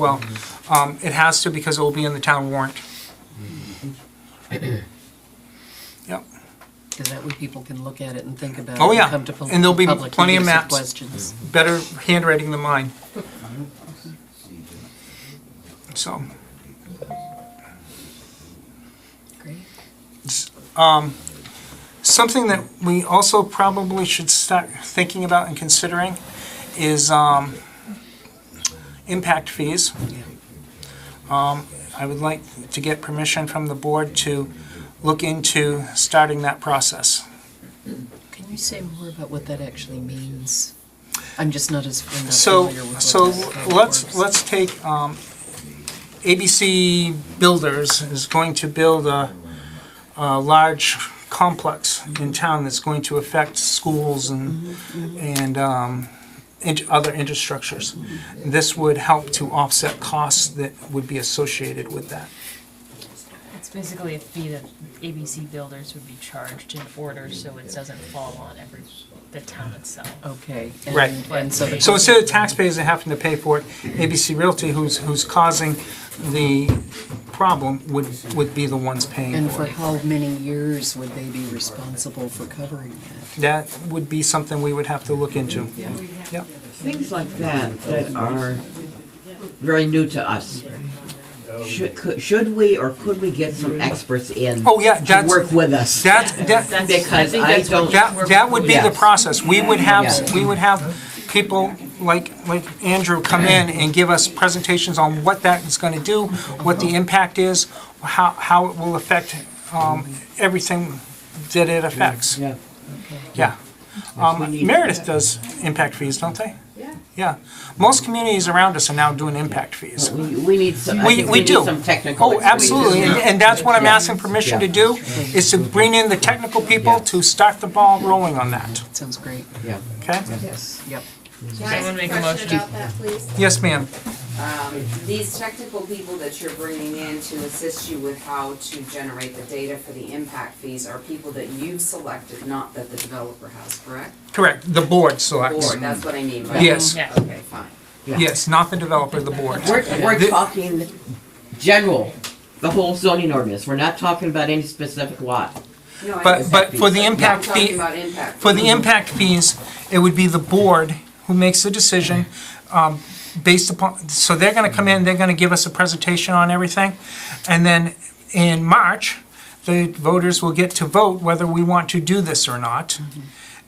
well. Um, It has to because it will be in the town warrant. Yep. Because that way people can look at it and think about it. Oh, yeah. Come to pub- And there'll be public plenty of meetings with maps. Questions. better handwriting than mine. So, Great. um, something that we also probably should start thinking about and considering is um, impact fees. Um, Yeah. I would like to get permission from the board to look into starting that process. Can you say more about what that actually means? I'm just not as I'm not So, familiar with what so that kind of let's, works. let's take, um, ABC Builders is going to build a, a large complex in town that's going to affect schools and, and, um, and other infrastructures. This would help to offset costs that would be associated with that. It's basically a fee that ABC builders would be charged in order, so it doesn't fall on every, the town itself. Okay. Right. and- And so. the- So instead of taxpayers that having to pay for it, ABC Realty, who's, who's causing the problem, would, would be the ones paying And for for it. how many years would they be responsible for covering that? That would be something we would have to look into. Yep. Things like that that are very new to us. Should, could- should we or could we get some experts in? Oh, yeah, To that's- work with us? That, that, That's- I Because think I that's what don't- that, that would be the Yes. process. We would have, Yes. we would have people like, like Andrew come in and give us presentations on what that is gonna do, what the impact is, how, how it will affect, um, everything that it affects. Yeah. Yeah. Um, Meredith does impact fees, don't they? Yeah. Yeah. Most communities around us are now doing impact fees. We, we need some, I We- think we we need do. some technical Oh, expertise. absolutely, and, and that's what I'm asking permission to do, is to bring in the technical people to start the ball rolling on that, Sounds great. Yeah. okay? Yes. Yep. Can I ask Someone a make a question motion. about that, please? Yes, ma'am. Um, These technical people that you're bringing in to assist you with how to generate the data for the impact fees are people that you've selected, not that the developer has, correct? Correct, the board selects. Or, that's what I mean by. Yes. Yeah. Okay, fine. Yes, not the developer, the board. We're, we're The- talking general, the whole zoning ordinance. We're not talking about any specific lot. No, I But, understand. but for the No, I'm impact talking fee, about impact for the impact fees, it would be the board who makes the decision, um, based upon, so they're gonna come in, they're gonna give us a presentation on everything. And then in March, the voters will get to vote whether we want to do this or not.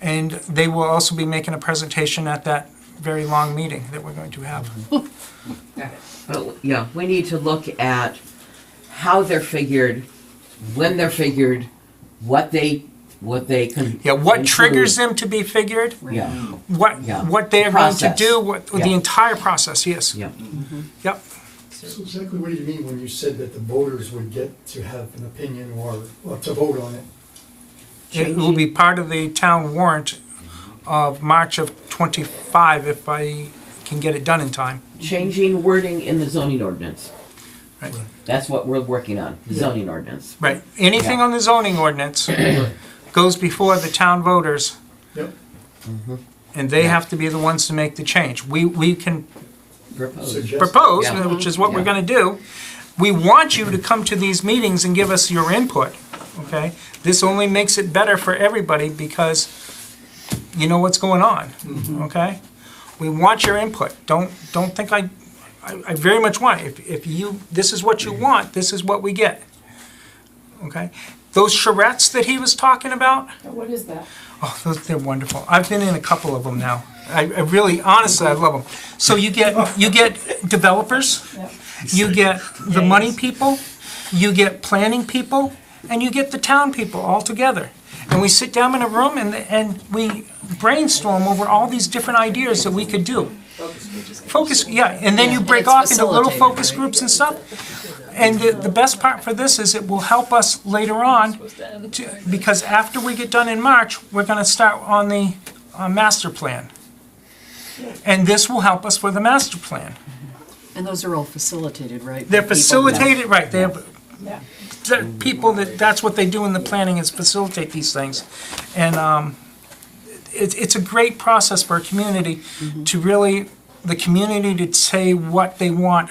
And they will also be making a presentation at that very long meeting that we're going to have. Got it. But, yeah, we need to look at how they're figured, when they're figured, what they, what they can. Yeah, what triggers include. them to be figured, Yeah, what, Yeah. what they are going to Process. do, what, the Yeah. entire process, yes. yeah. Yep, So exactly what do you mean when you said that the voters would get to have an opinion or, or to vote on it? it will be part of the town warrant of March of twenty-five if I can get it done in time. Changing wording in the zoning ordinance. Right. That's what we're working on, the zoning ordinance. Right, anything on the zoning ordinance goes before the town voters, Yep. and they have to be the ones to make the change. We, we can Proposed. Suggest- propose, Yeah. which is what we're Yeah. gonna do. We want you to come to these meetings and give us your input, okay? This only makes it better for everybody because you know what's going on, Mm-hmm. okay? We want your input. Don't, don't think I, I I very much want, it. if, if you, this is what you Mm-hmm. want, this is what we get. Okay? Those charrettes that he was talking about, What is that? Oh, those, they're wonderful. I've been in a couple of them now. I, I really, honestly, I love them. So you get, you get developers, you get the money people, you get planning people, and you get the town people all together. And we sit down in a room and, and we brainstorm over all these different ideas that we could do. Focus, yeah, and then you Yeah, break it's off into little facilitated, focus right? groups and stuff. And the, the best part for this is it will help us later on, to- because after we get done in March, we're gonna start on the, uh, master plan. And this will help us with the master plan. And those are all facilitated, right? They're by people? facilitated, right, they have, Yeah. the people that, that's what they do in the planning is facilitate these things. And, um, it, it's a great process for a community to really, the community to say what they want,